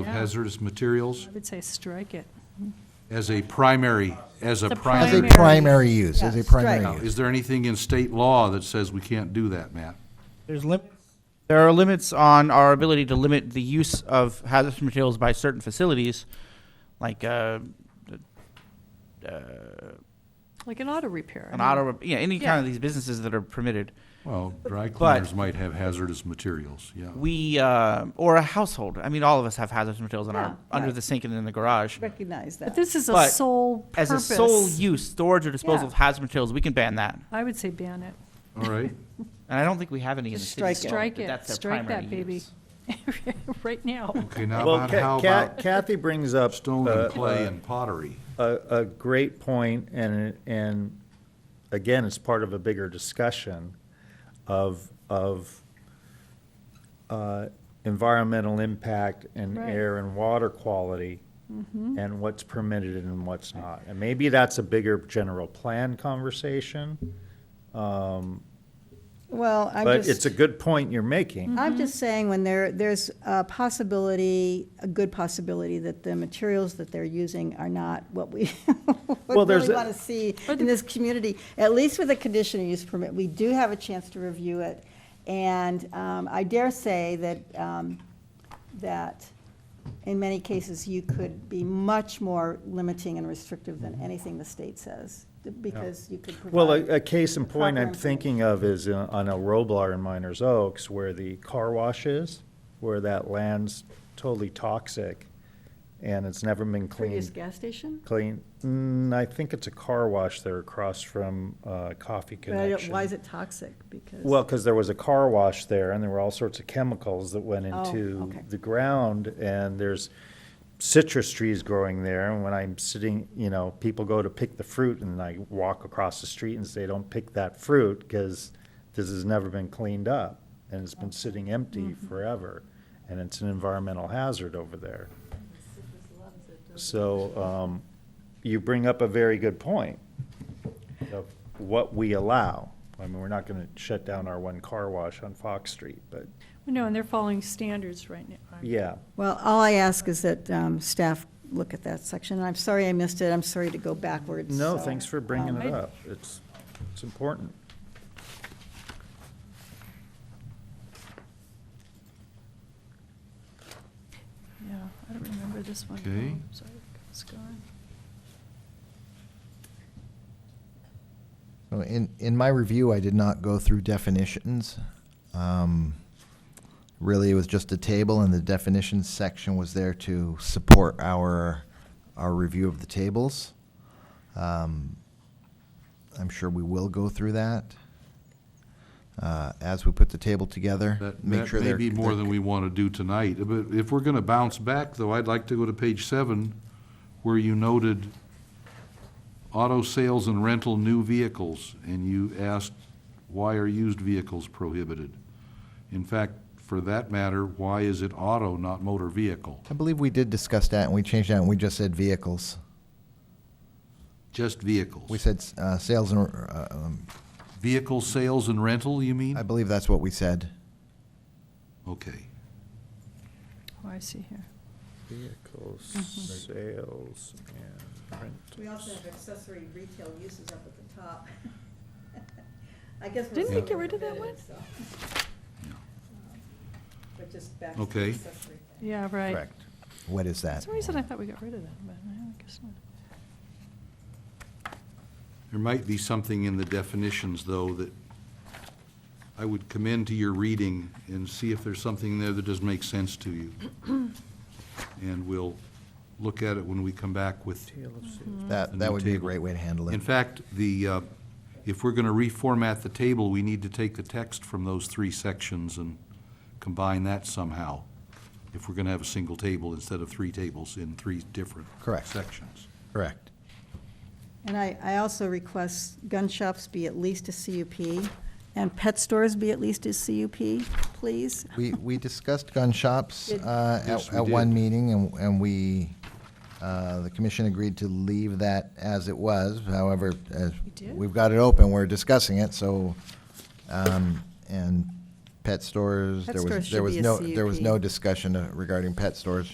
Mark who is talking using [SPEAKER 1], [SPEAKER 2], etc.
[SPEAKER 1] of hazardous materials
[SPEAKER 2] I would say strike it.
[SPEAKER 1] as a primary, as a
[SPEAKER 2] It's a
[SPEAKER 1] primary.
[SPEAKER 3] As a
[SPEAKER 2] Primary.
[SPEAKER 3] primary use, as
[SPEAKER 4] Yeah,
[SPEAKER 3] a
[SPEAKER 4] strike.
[SPEAKER 1] Now,
[SPEAKER 3] primary use.
[SPEAKER 1] Is there anything in state law that says we can't do that, Matt?
[SPEAKER 5] There's lim- there are limits on our ability to limit the use of hazardous materials by certain facilities, like uh,
[SPEAKER 2] Like an auto repair. I
[SPEAKER 5] an
[SPEAKER 2] mean,
[SPEAKER 5] auto, yeah, any
[SPEAKER 2] Mm-hmm. Yeah.
[SPEAKER 5] kind of these businesses that are permitted.
[SPEAKER 1] Well, dry cleaners might have hazardous materials, yeah.
[SPEAKER 5] We uh, or a household. I mean, all of us have hazardous materials in
[SPEAKER 4] Yeah,
[SPEAKER 5] our under
[SPEAKER 4] right.
[SPEAKER 5] the sink and in the garage.
[SPEAKER 4] recognize that.
[SPEAKER 2] But this is a
[SPEAKER 5] But
[SPEAKER 2] sole
[SPEAKER 5] As a sole
[SPEAKER 2] purpose.
[SPEAKER 5] use, storage or disposal
[SPEAKER 4] Yeah.
[SPEAKER 5] of hazardous materials, we can ban that.
[SPEAKER 2] I would say ban it.
[SPEAKER 1] All right,
[SPEAKER 5] And I don't think we have any in the
[SPEAKER 4] Just
[SPEAKER 5] city.
[SPEAKER 4] strike it.
[SPEAKER 5] still,
[SPEAKER 2] Strike
[SPEAKER 5] but
[SPEAKER 2] it.
[SPEAKER 5] that's their
[SPEAKER 2] Strike that,
[SPEAKER 5] primary
[SPEAKER 2] baby.
[SPEAKER 5] use.
[SPEAKER 2] Right now.
[SPEAKER 1] okay, now
[SPEAKER 6] Well,
[SPEAKER 1] about, how
[SPEAKER 6] Ca- Ca-
[SPEAKER 1] about
[SPEAKER 6] Kathy brings up
[SPEAKER 1] stone
[SPEAKER 6] uh,
[SPEAKER 1] and clay and pottery?
[SPEAKER 6] a, a great point, and, and again, it's part of a bigger discussion of, of uh, environmental impact and
[SPEAKER 2] Right.
[SPEAKER 6] air and water quality, and what's permitted and what's not. And maybe that's a bigger general plan conversation,
[SPEAKER 4] Well, I'm
[SPEAKER 6] but it's
[SPEAKER 4] just,
[SPEAKER 6] a good point you're making.
[SPEAKER 4] I'm just saying when there, there's a possibility, a good possibility that the materials that they're using are not what we
[SPEAKER 6] Well,
[SPEAKER 4] would
[SPEAKER 6] there's
[SPEAKER 4] really
[SPEAKER 6] a-
[SPEAKER 4] want to see in this community. At least with a conditional use permit, we do have a chance to review it. And um, I dare say that, um, that in many cases, you could be much more limiting and restrictive than anything the state says, because you could provide.
[SPEAKER 6] Well, a, a case in point
[SPEAKER 4] proper
[SPEAKER 6] I'm thinking of is uh, on El Roblar in Miners Oaks, where the car wash is, where that land's totally toxic, and it's never been
[SPEAKER 4] Previous
[SPEAKER 6] cleaned.
[SPEAKER 4] gas station?
[SPEAKER 6] Clean, mm, I think it's a car wash there across from, uh, Coffee
[SPEAKER 4] But I don't-
[SPEAKER 6] Connection.
[SPEAKER 4] why is it toxic? Because.
[SPEAKER 6] Well, because there was a car wash there, and there were all sorts of chemicals that went
[SPEAKER 4] Oh,
[SPEAKER 6] into
[SPEAKER 4] okay.
[SPEAKER 6] the ground, and there's citrus trees growing there, and when I'm sitting, you know, people go to pick the fruit, and I walk across the street and say, don't pick that fruit, because this has never been cleaned up, and it's been sitting empty
[SPEAKER 4] Mm-hmm.
[SPEAKER 6] forever, and it's an environmental hazard over there. So, um, you bring up a very good point of what we allow. I mean, we're not gonna shut down our one car wash on Fox Street, but,
[SPEAKER 2] No, and they're following standards right now.
[SPEAKER 6] yeah.
[SPEAKER 4] Well, all I ask is that um, staff look at that section, and I'm sorry I missed it, I'm sorry to go backwards.
[SPEAKER 6] No,
[SPEAKER 4] so,
[SPEAKER 6] thanks for bringing
[SPEAKER 4] um,
[SPEAKER 6] it up. It's, it's important.
[SPEAKER 2] Yeah, I don't remember this one.
[SPEAKER 1] Okay.
[SPEAKER 2] Oh, sorry, it's gone.
[SPEAKER 3] So In, in my review, I did not go through definitions. Um, Really, it was just a table, and the definitions section was there to support our, our review of the tables. Um, I'm sure we will go through that uh, as we put the table together.
[SPEAKER 1] That,
[SPEAKER 3] make
[SPEAKER 1] that
[SPEAKER 3] sure
[SPEAKER 1] may
[SPEAKER 3] they're-
[SPEAKER 1] be more
[SPEAKER 3] they're-
[SPEAKER 1] than we want to do tonight, but if we're going to bounce back, though, I'd like to go to page seven, where you noted auto sales and rental new vehicles, and you asked, why are used vehicles prohibited? In fact, for that matter, why is it auto, not motor vehicle?
[SPEAKER 3] I believe we did discuss that, and we changed that, and we just said vehicles.
[SPEAKER 1] Just vehicles?
[SPEAKER 3] We said uh, sales and, uh, um,
[SPEAKER 1] Vehicle sales and rental, you mean?
[SPEAKER 3] I believe that's what we said.
[SPEAKER 1] Okay.
[SPEAKER 2] Oh, I see here.
[SPEAKER 6] Vehicles, sales, and
[SPEAKER 4] Mm-hmm. We also have accessory retail uses up at the top. I guess. we're
[SPEAKER 2] Didn't we
[SPEAKER 4] still
[SPEAKER 2] get rid of that
[SPEAKER 4] permitted, so. But just back to the
[SPEAKER 1] Okay.
[SPEAKER 4] accessory thing.
[SPEAKER 2] Yeah, right.
[SPEAKER 3] Correct. What is
[SPEAKER 2] For
[SPEAKER 3] that?
[SPEAKER 2] some reason, I thought we got rid of that, but I guess not.
[SPEAKER 1] There might be something in the definitions, though, that I would commend to your reading and see if there's something there that does make sense to you. And we'll look at it when we come back with,
[SPEAKER 4] Mm-hmm.
[SPEAKER 3] That, that would be a great way to handle it.
[SPEAKER 1] in fact, the, uh, if we're going to reformat the table, we need to take the text from those three sections and combine that somehow, if we're going to have a single table instead of three tables in three different
[SPEAKER 3] Correct.
[SPEAKER 1] sections.
[SPEAKER 3] Correct.
[SPEAKER 4] And I, I also request gun shops be at least a CUP, and pet stores be at least a CUP, please.
[SPEAKER 3] We, we discussed gun shops
[SPEAKER 4] Did-
[SPEAKER 3] uh,
[SPEAKER 1] Yes,
[SPEAKER 3] at,
[SPEAKER 1] we
[SPEAKER 3] at one
[SPEAKER 1] did.
[SPEAKER 3] meeting, and, and we, uh, the commission agreed to leave that as it was. However, as
[SPEAKER 2] We did?
[SPEAKER 3] we've got it open, we're discussing it, so, um, and pet stores,
[SPEAKER 4] Pet
[SPEAKER 3] there
[SPEAKER 4] stores
[SPEAKER 3] was,
[SPEAKER 4] should
[SPEAKER 3] there was
[SPEAKER 4] be a
[SPEAKER 3] no, there was
[SPEAKER 4] CUP.
[SPEAKER 3] no discussion uh, regarding pet stores.